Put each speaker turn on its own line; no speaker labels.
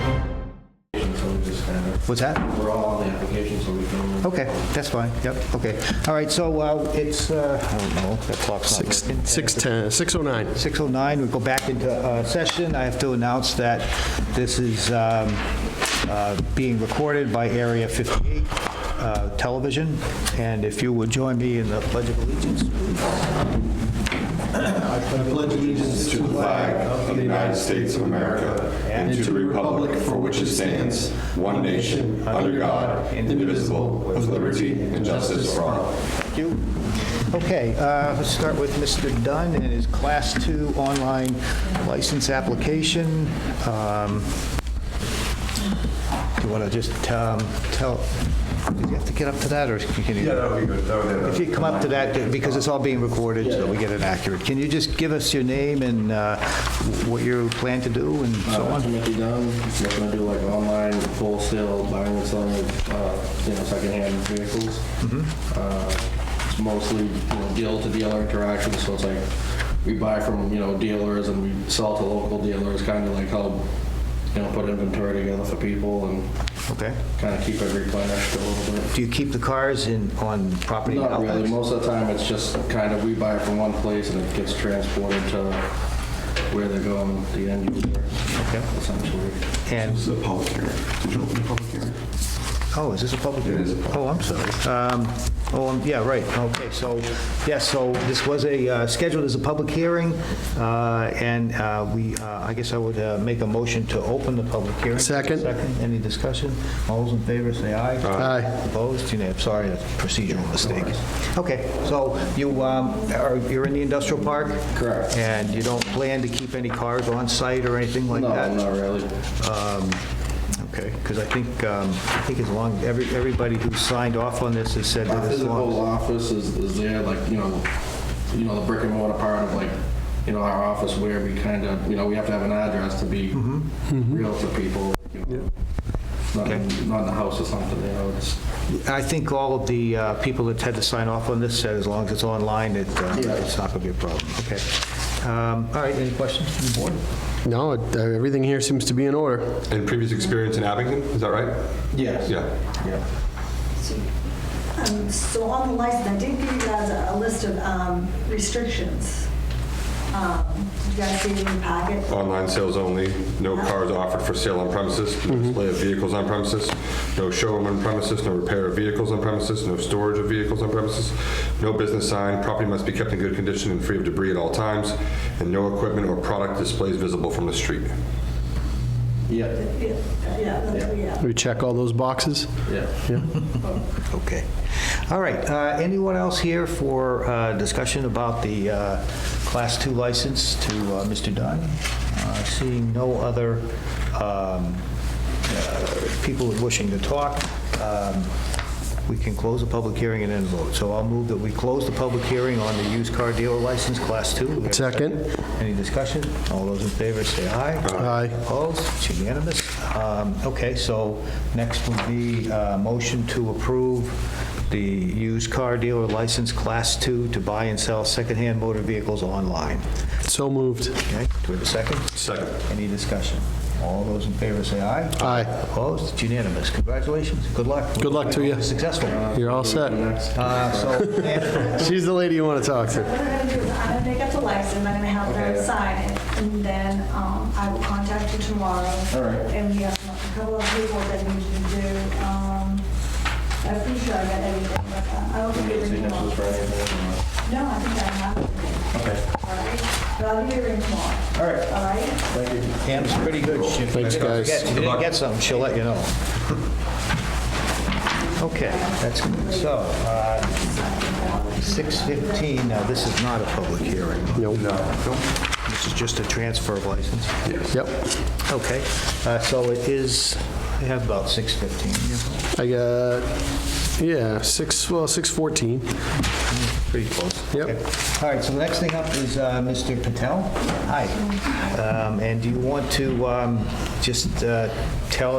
So we just kind of,
What's that?
we're all on the application, so we can.
Okay, that's fine, yep, okay. All right, so uh, it's, uh, I don't know, that clock's not
Six-
working.
6:10, 6:09.
6:09, we go back into uh, session. I have to announce that this is um, uh, being recorded by Area 58 uh, Television, and if you would join me in the Pledge of Allegiance.
allegiance to the flag of the United States of America and to the republic for which it stands, one nation, under God, indivisible, with liberty and justice for all.
Thank you. Okay, uh, let's start with Mr. Dunn and his Class 2 online license application. Um, Do you want to just um, tell, do you have to get up to that, or can you?
would be good.
If you come up to that, because it's all being recorded, so we get it accurate. Can you just give us your name and uh, what you plan to do and so
Uh,
So
on?
to make it done, we're gonna do like online wholesale buying and selling of, uh, you know, secondhand vehicles.
Mm-hmm.
Uh, It's mostly, you know, deal to dealer interaction, so it's like, we buy from, you know, dealers and we sell to local dealers, kind of like help, you know, put inventory together for people and
Okay.
kind of keep it replenished a little bit.
Do you keep the cars in, on property
Not
outlets?
really. Most of the time, it's just kind of, we buy it from one place and it gets transported to where they're going, the end user, essentially.
And,
This is a public hearing. Did you open the public hearing?
oh, is this a public hearing?
is a public
Oh, I'm sorry. Um, Oh, um, yeah, right, okay, so, yes, so this was a, uh, scheduled as a public hearing, uh, and uh, we, uh, I guess I would uh, make a motion to open the public hearing.
Second.
Any discussion? All those in favor, say aye.
Aye.
Opposed? You know, sorry, that's a procedural mistake. Okay, so you um, are, you're in the industrial park?
Correct.
And you don't plan to keep any cars on site or anything like that?
No, not really.
Um, Okay, because I think, um, I think as long, every everybody who signed off on this has said
Our
that as
physical
long...
office is, is there, like, you know, you know, the brick and mortar part of like, you know, our office where we kind of, you know, we have to have an address to be real to people. you know. Not in, not in the house or something, you know, it's,
I think all of the uh, people that had to sign off on this said as long as it's online, it, uh,
Yeah.
it's not going to be a problem. Okay. Um, All right, any questions from the board?
No, it- uh, everything here seems to be in order.
And previous experience in Abington, is that right?
yes.
Yeah.
Yeah.
Um, So on the license, I did give you guys a a list of um, restrictions. Um, Did you guys see it in your packet?
Online sales only, no cars offered for sale on premises,
Mm-hmm.
no display of vehicles on premises, no showroom on premises, no repair of vehicles on premises, no storage of vehicles on premises, no business sign, property must be kept in good condition and free of debris at all times, and no equipment or product displays visible from the street.
Yeah,
Yeah, Yeah, yeah.
We check all those boxes.
yeah.
Okay. All right, uh, anyone else here for uh, discussion about the uh, Class 2 license to uh, Mr. Dunn? Uh, Seeing no other um, uh, people wishing to talk, um, we can close the public hearing and then vote. So I'll move that we close the public hearing on the used car dealer license, Class 2.
Second.
Any discussion? All those in favor say aye.
Aye.
Opposed? It's unanimous. Um, Okay, so next would be uh motion to approve the used car dealer license Class 2 to buy and sell secondhand motor vehicles online.
So moved.
Okay, do we have a second?
Second.
Any discussion? All those in favor say aye.
Aye.
Opposed? It's unanimous. Congratulations. Good luck.
Good luck to you.
Successful.
You're all set.
Uh, So,
She's the lady you want to talk to.
What I'm gonna do is I'm gonna make up the license, I'm gonna have them sign it, and then um, I will contact you tomorrow. All right. And we have a couple of people that need you to do. um, I'm pretty sure I got everything, but uh, I will give you a ring tomorrow.
Signatures for anything, or-
No, I think I have everything. Okay. All right, but I'll give you a ring tomorrow. All right. All right?
Pam's pretty good. She-
Thanks,
if you
guys.
forget- If you didn't get something, she'll let you know. Okay, that's, so, uh, 6:15, now this is not a public hearing.
Nope.
This is just a transfer of license.
Yep.
Okay, uh, so it is, we have about 6:15, yeah,
I got, yeah, 6, well, 6:14.
pretty close.
Yep.
Okay. All right, so the next thing up is uh, Mr. Patel. Hi. Um, And do you want to um, just uh, tell us?